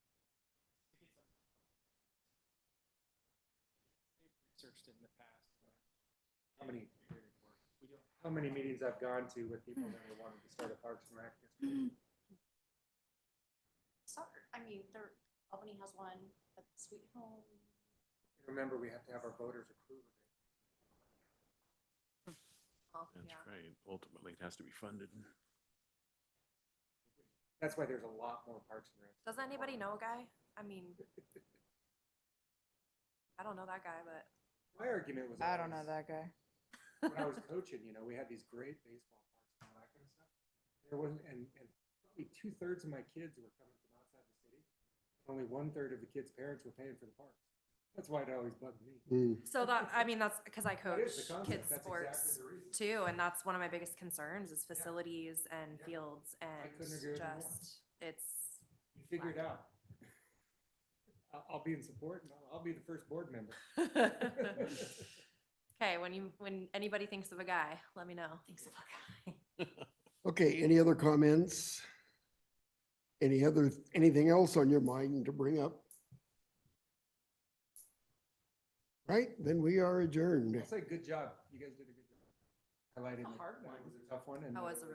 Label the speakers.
Speaker 1: interested in the past. uh, How many, we don't- how many meetings I've gone to with people
Speaker 2: Hmm.
Speaker 1: that are wanting to start a Parks and Rec.
Speaker 3: soccer. I mean, there, Albany has one, but Sweet Home.
Speaker 1: Remember, we have to have our voters approve of it.
Speaker 3: Oh,
Speaker 4: That's
Speaker 3: yeah.
Speaker 4: right. Ultimately, it has to be funded.
Speaker 1: That's why there's a lot more Parks and Rec.
Speaker 5: Does anybody know a guy? I mean, I don't know that guy, but
Speaker 1: My argument was.
Speaker 2: I don't know
Speaker 1: always-
Speaker 2: that guy.
Speaker 1: when I was coaching, you know, we had these great baseball parks and all that kind of stuff. There wasn't, and, and probably two thirds of my kids were coming from outside the city. Only one third of the kids' parents were paying for the parks. That's why it always bugged me.
Speaker 5: so that, I mean, that's because I
Speaker 1: That
Speaker 5: coach
Speaker 1: is the concept.
Speaker 5: kids
Speaker 1: That's
Speaker 5: sports
Speaker 1: exactly the reason.
Speaker 5: too, and that's one of my biggest concerns is facilities and
Speaker 1: Yeah.
Speaker 5: fields and
Speaker 1: couldn't agree with you more.
Speaker 5: just, it's,
Speaker 1: You figure it out. I'll, I'll be in support and I'll, I'll be the first board member.
Speaker 5: Okay, when you, when anybody thinks of a guy, let me know. Thinks of a guy.
Speaker 6: Okay, any other comments? Any other, anything else on your mind to bring up? Right, then we are adjourned.
Speaker 1: I'll say, good job. You guys did a good job. Highlighted.
Speaker 3: A hard one.
Speaker 1: It was a tough one and.
Speaker 5: That was a